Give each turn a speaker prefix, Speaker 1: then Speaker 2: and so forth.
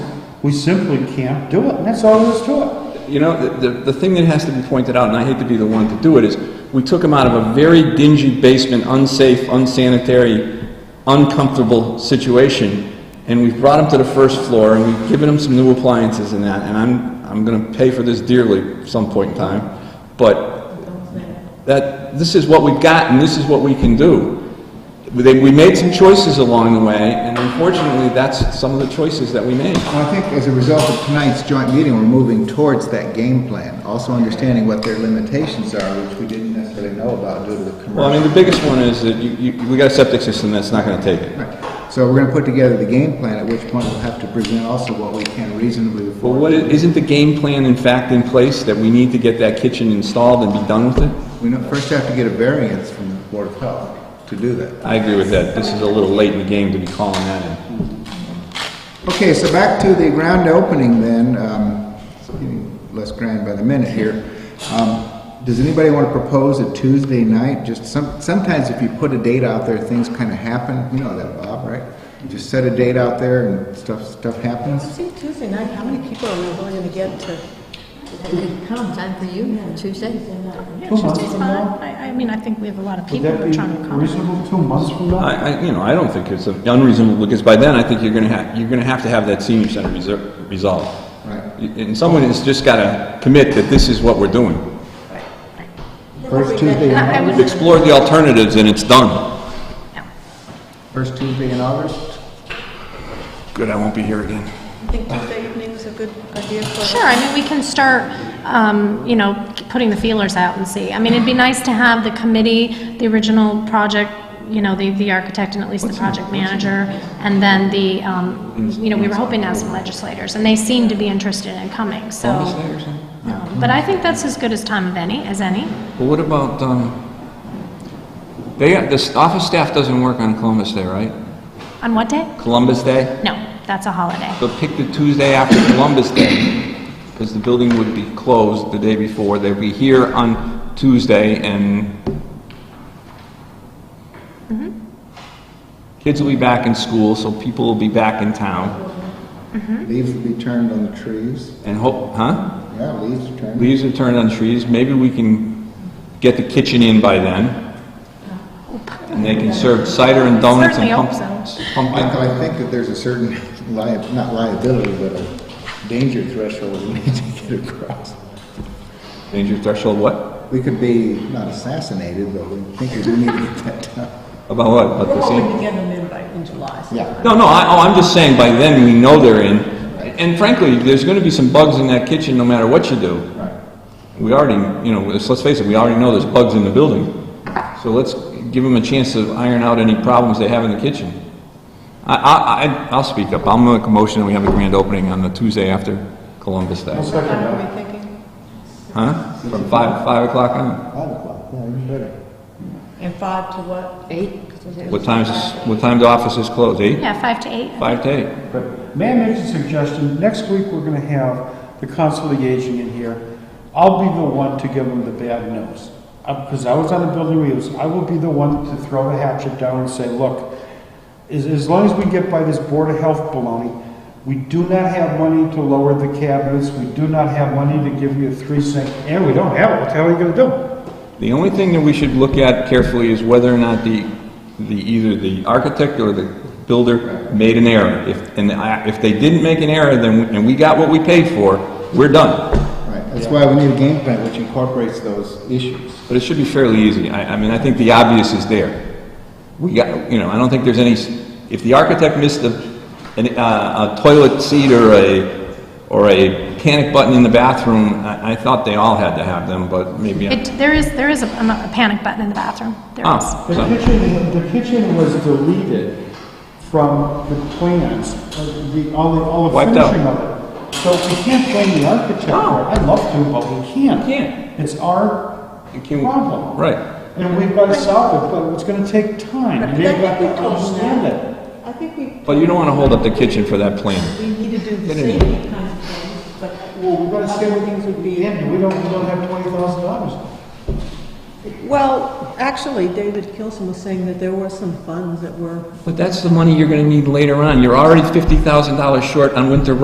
Speaker 1: We simply can't do it, and that's all there is to it.
Speaker 2: You know, the, the, the thing that has to be pointed out, and I hate to be the one to do it, is we took him out of a very dingy basement, unsafe, unsanitary, uncomfortable situation, and we've brought him to the first floor, and we've given him some new appliances and that, and I'm, I'm gonna pay for this dearly some point in time, but that, this is what we've got, and this is what we can do. They- We made some choices along the way, and unfortunately, that's some of the choices that we made.
Speaker 3: Well, I think as a result of tonight's joint meeting, we're moving towards that game plan, also understanding what their limitations are, which we didn't necessarily know about due to the
Speaker 2: Well, I
Speaker 3: commercial.
Speaker 2: mean, the biggest one is that you, you, we got a septic system that's not gonna take it.
Speaker 3: Right. So we're gonna put together the game plan, at which point we'll have to present also what we can reasonably
Speaker 2: Well,
Speaker 3: afford.
Speaker 2: what, i- isn't the game plan in fact in place that we need to get that kitchen installed and be done with it?
Speaker 3: We know- first have to get a variance from the Board of Health to do that.
Speaker 2: I agree with that. This is a little late in the game to be calling that in.
Speaker 3: Okay, so back to the grand opening then, um, it's getting less grand by the minute here. Um, Does anybody want to propose a Tuesday night? Just some, sometimes if you put a date out there, things kind of happen, you know that, Bob, right? You Just set a date out there and stuff, stuff happens.
Speaker 4: I think Tuesday night, how many people are we really going to get to?
Speaker 5: Good come, time for you, Tuesday.
Speaker 6: Yeah,
Speaker 1: Two months
Speaker 6: Tuesday's
Speaker 1: from
Speaker 6: fine.
Speaker 1: now?
Speaker 6: I, I mean, I think we have a lot of
Speaker 1: Would
Speaker 6: people
Speaker 1: that
Speaker 6: who are trying to
Speaker 1: be
Speaker 6: accommodate.
Speaker 1: reasonable two months from now?
Speaker 2: I, I, you know, I don't think it's unreasonable, because by then I think you're gonna have, you're gonna have to have that senior center reser- resolved.
Speaker 3: Right.
Speaker 2: Y- And someone has just gotta commit that this is what we're doing.
Speaker 1: First Tuesday,
Speaker 6: I I
Speaker 1: night?
Speaker 6: would,
Speaker 2: We've explored the alternatives and it's done.
Speaker 3: First Tuesday in August?
Speaker 2: Good, I won't be here again.
Speaker 4: I think Tuesday evening is a good idea for.
Speaker 6: sure, I mean, we can start, um, you know, putting the feelers out and see. I mean, it'd be nice to have the committee, the original project, you know, the, the architect and at least the project manager, and then the, um, you know, we were hoping to have some legislators, and they seemed to be interested in coming, so. Um, But I think that's as good as time of any, as any.
Speaker 2: Well, what about, um, they, the office staff doesn't work on Columbus Day, right?
Speaker 6: On what day?
Speaker 2: Columbus Day?
Speaker 6: No, that's a holiday.
Speaker 2: But pick the Tuesday after Columbus Day, because the building would be closed the day before. They'd be here on Tuesday, and
Speaker 6: Mm-hmm.
Speaker 2: kids will be back in school, so people will be back in town,
Speaker 3: Leaves will be turned on the trees.
Speaker 2: and hope, huh?
Speaker 3: Yeah, leaves are turned.
Speaker 2: Leaves are turned on trees, maybe we can get the kitchen in by then, and they can serve cider and donuts and
Speaker 6: Certainly hope
Speaker 2: pumpkins.
Speaker 3: Michael,
Speaker 2: Pumpkin.
Speaker 3: I think that there's a certain lia- not liability, but a danger threshold we need to get across.
Speaker 2: Danger threshold, what?
Speaker 3: We could be not assassinated, but we think we do need to get that done.
Speaker 2: About what? About
Speaker 4: We're
Speaker 2: the same?
Speaker 4: hoping to get them in by, in July. so-
Speaker 3: Yeah.
Speaker 2: No, no, I, oh, I'm just saying by then we know they're in. And frankly, there's gonna be some bugs in that kitchen no matter what you do. We already, you know, let's let's face it, we already know there's bugs in the building. So let's give them a chance to iron out any problems they have in the kitchen. I, I, I- I'll speak up. I'll make a motion that we have a grand opening on the Tuesday after Columbus
Speaker 1: I'll
Speaker 2: Day.
Speaker 4: What
Speaker 1: second
Speaker 4: time
Speaker 1: that.
Speaker 4: are we thinking?
Speaker 2: Huh? From five, five o'clock on.
Speaker 3: Five o'clock, yeah, even better.
Speaker 4: And five to what?
Speaker 5: Eight.
Speaker 2: What time is, what time do offices close? Eight?
Speaker 6: Yeah, five to eight.
Speaker 2: Five to eight?
Speaker 1: But may I make a suggestion? Next week, we're going to have the council of aging in here. I'll be the one to give them the bad news. Because I was on the building reviews, I will be the one to throw the hatchet down and say, look, as, as long as we get by this Board of Health baloney, we do not have money to lower the cabinets, we do not have money to give you a three sink, and we don't have it, what the hell are you going to
Speaker 2: The only thing that we should look at carefully is whether or not the, the, either the architect or the builder made an error. If, and I- if they didn't make an error, then, we- and we got what we paid for, we're done.
Speaker 3: Right, that's why we need a game plan which incorporates those issues.
Speaker 2: But it should be fairly easy. I, I mean, I think the obvious is there. We got, you know, I don't think there's any, s- if the architect missed a, an, uh, a toilet seat or a, or a panic button in the bathroom, I, I thought they all had to have them, but maybe. I'm-
Speaker 6: It, there is, there is a, a panic button in the bathroom. There
Speaker 1: Ah.
Speaker 6: is.
Speaker 2: Oh,
Speaker 1: do? The
Speaker 2: so-
Speaker 1: kitchen, the kitchen was deleted from the plans, uh, the, all the, all the
Speaker 2: Wiped out.
Speaker 1: finishing of it. So we can't blame the architect, for it. I'd love to, but we can't.
Speaker 2: You can't.
Speaker 1: It's our problem.
Speaker 2: Right.
Speaker 1: And we've got to solve it, but it's going to take time, and they've got to understand it.
Speaker 4: I think we,
Speaker 2: But you don't want to hold up the kitchen for that plan.
Speaker 4: we need to do the
Speaker 2: Get in.
Speaker 4: safety kind of things, but.
Speaker 1: Well, we've got to say
Speaker 4: other
Speaker 1: what things would be in, and we don't, we don't have twenty thousand dollars.
Speaker 4: Well, actually, David Kilson was saying that there were some funds that were
Speaker 2: But that's the money you're gonna need later on. You're already fifty thousand dollars short on winter